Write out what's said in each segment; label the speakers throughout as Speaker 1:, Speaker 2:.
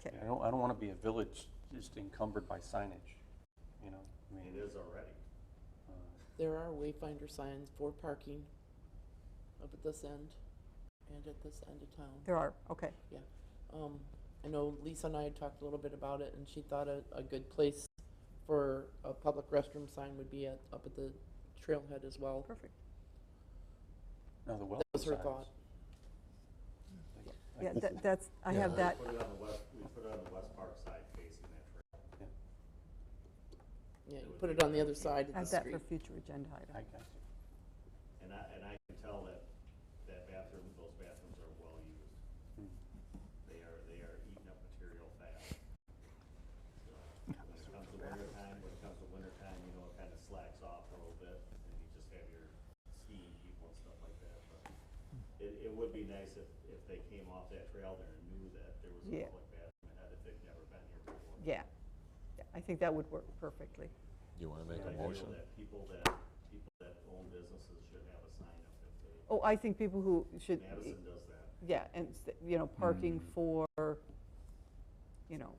Speaker 1: Okay.
Speaker 2: I don't, I don't want to be a village just encumbered by signage, you know? I mean,
Speaker 3: It is already.
Speaker 2: uh,
Speaker 4: There are wayfinder signs for parking up at this end and at this end of town.
Speaker 1: There are, okay.
Speaker 4: Um, I know Lisa and I had talked a little bit about it, and she thought a, a good place for a public restroom sign would be at, up at the trailhead as well.
Speaker 1: Perfect.
Speaker 2: No, the welcome
Speaker 4: That was her
Speaker 2: signs.
Speaker 4: thought.
Speaker 2: Like-
Speaker 1: Yeah,
Speaker 2: like-
Speaker 1: that- that's, I
Speaker 5: Yeah.
Speaker 1: have
Speaker 3: We
Speaker 1: that,
Speaker 3: Put it on the west, we put it on the west park side facing that trail.
Speaker 4: Yeah, you put it on the other side
Speaker 1: I
Speaker 4: of
Speaker 1: have
Speaker 4: the
Speaker 1: that
Speaker 4: street.
Speaker 1: for future agenda
Speaker 2: I
Speaker 1: item.
Speaker 2: got you.
Speaker 3: And I, and I can tell that, that bathroom, those bathrooms are well used.
Speaker 2: Hmm.
Speaker 3: They are, they are eating up material fast. So, When it comes to winter time, when it comes to winter time, you know, it kind of slacks off a little bit and you just have your skiing people and stuff like that, but it, it would be nice if, if they came off that trail there and knew that there was
Speaker 1: Yeah.
Speaker 3: a public bathroom ahead if they'd never been here before.
Speaker 1: Yeah, Yeah, I think that would work perfectly.
Speaker 5: You want to make
Speaker 3: I
Speaker 5: a
Speaker 3: feel
Speaker 5: motion?
Speaker 3: that people that, people that own businesses should have a sign up if they,
Speaker 1: Oh, I think people who should,
Speaker 3: Madison does that.
Speaker 1: yeah, and, s- you know, parking for, you know,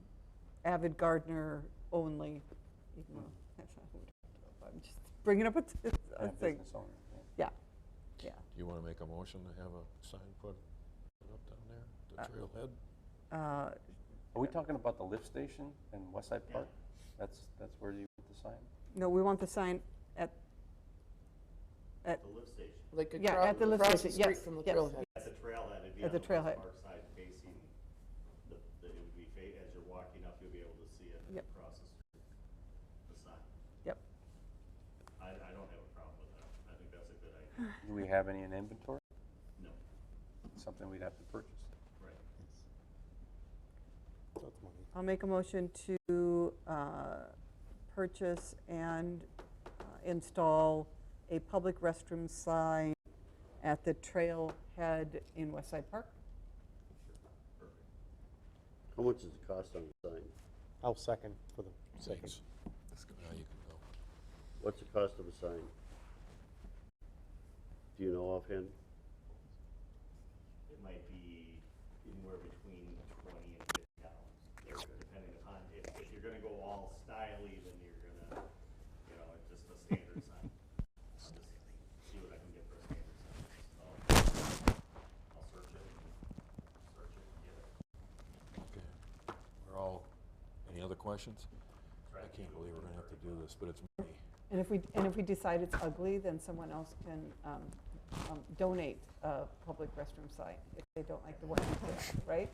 Speaker 1: avid gardener only, even though that's not who we're talking about. I'm just bringing up a t- a
Speaker 2: And a
Speaker 1: thing,
Speaker 2: business owner, yeah.
Speaker 1: yeah.
Speaker 5: Do you want to make a motion to have a sign put put up down there,
Speaker 1: Uh,
Speaker 5: at the trailhead?
Speaker 1: Uh,
Speaker 2: Are we talking about the lift station in West Side
Speaker 3: Yeah.
Speaker 2: Park? That's, that's where you put the sign?
Speaker 1: No, we want the sign at,
Speaker 3: The lift station,
Speaker 4: Like
Speaker 1: Yeah,
Speaker 4: across,
Speaker 1: at the lift
Speaker 4: across the
Speaker 1: station, yes,
Speaker 4: street from the
Speaker 1: yes,
Speaker 4: trailhead.
Speaker 3: at the trailhead, it'd be
Speaker 1: At
Speaker 3: on
Speaker 1: the
Speaker 3: the
Speaker 1: trailhead.
Speaker 3: west park side facing, the, the- it would be, fa- as you're walking up, you'll be able to see it
Speaker 1: Yep.
Speaker 3: across the street, the sign.
Speaker 1: Yep.
Speaker 3: I, I don't have a problem with that, I think that's a good idea,
Speaker 2: Do we have any in inventory?
Speaker 3: no,
Speaker 2: Something we'd have to purchase?
Speaker 3: right.
Speaker 1: I'll make a motion to uh, purchase and uh, install a public restroom sign at the trailhead in West Side Park.
Speaker 6: How much does it cost on the sign?
Speaker 7: I'll second for the sake of,
Speaker 5: Thanks. Now you can go.
Speaker 6: What's the cost of a sign? Do you know offhand?
Speaker 3: It might be anywhere between twenty and fifty dollars, depending upon, if, if you're gonna go all styly, then you're gonna, you know, it's just a standard sign. I'll just see what I can get for a standard sign, so, I'll search it, and search it, and get it.
Speaker 5: Okay. We're all, any other questions?
Speaker 3: Try
Speaker 5: I
Speaker 3: to
Speaker 5: can't
Speaker 3: do it
Speaker 5: believe we're going to have to do this, but it's money.
Speaker 1: And if we, and if we decide it's ugly, then someone else can um, um, donate a public restroom sign if they don't like the one we did, right?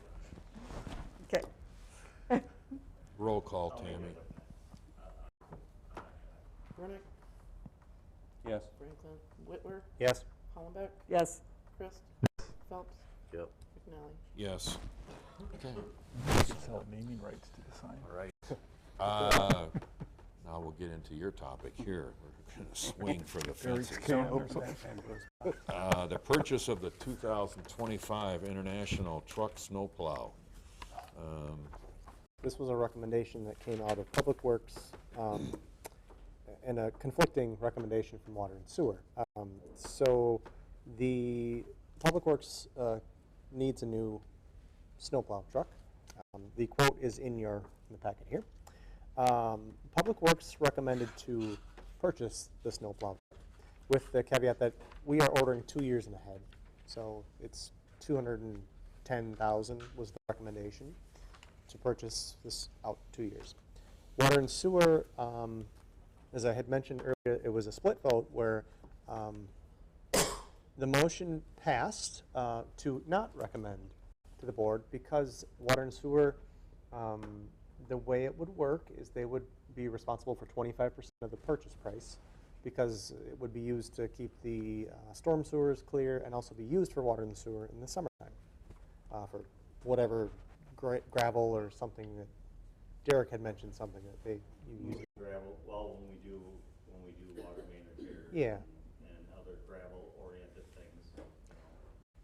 Speaker 1: Okay,
Speaker 5: Roll call, Tammy.
Speaker 4: Renick,
Speaker 2: Yes.
Speaker 4: Franklin, Whitwer,
Speaker 7: yes,
Speaker 4: Hollenbeck,
Speaker 1: yes.
Speaker 4: Christ, Phelps,
Speaker 6: Yep.
Speaker 4: McNally.
Speaker 5: Yes. Okay.
Speaker 8: sell naming rights to the sign.
Speaker 5: All right. Uh, Now we'll get into your topic here. We're going to swing for the fences. Uh, The purchase of the 2025 International Truck Snowplow. Um,
Speaker 7: this was a recommendation that came out of Public Works um, and a conflicting recommendation from Water and Sewer. Um, So the Public Works uh, needs a new snowplow truck. Um, The quote is in your, in the packet here. Um, Public Works recommended to purchase the snowplow with the caveat that we are ordering two years in ahead. So it's 210,000 was the recommendation to purchase this out two years. Water and sewer, um, as I had mentioned earlier, it was a split vote where um, the motion passed uh, to not recommend to the board because water and sewer, um, the way it would work is they would be responsible for 25% of the purchase price because it would be used to keep the uh, storm sewers clear and also be used for water and sewer in the summertime uh, for whatever gra- gravel or something that Derek had mentioned something that they you use.
Speaker 3: Gravel, well, when we do, when we do water main repair.
Speaker 7: Yeah.
Speaker 3: And other gravel oriented things, you know,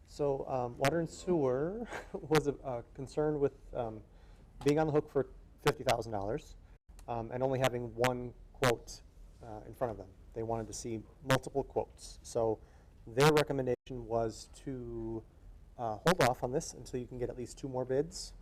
Speaker 7: So um, water and sewer was a, a concern with um, being on the hook for fifty thousand dollars um, and only having one quote uh, in front of them. They wanted to see multiple quotes. So their recommendation was to uh, hold off on this until you can get at least two more bids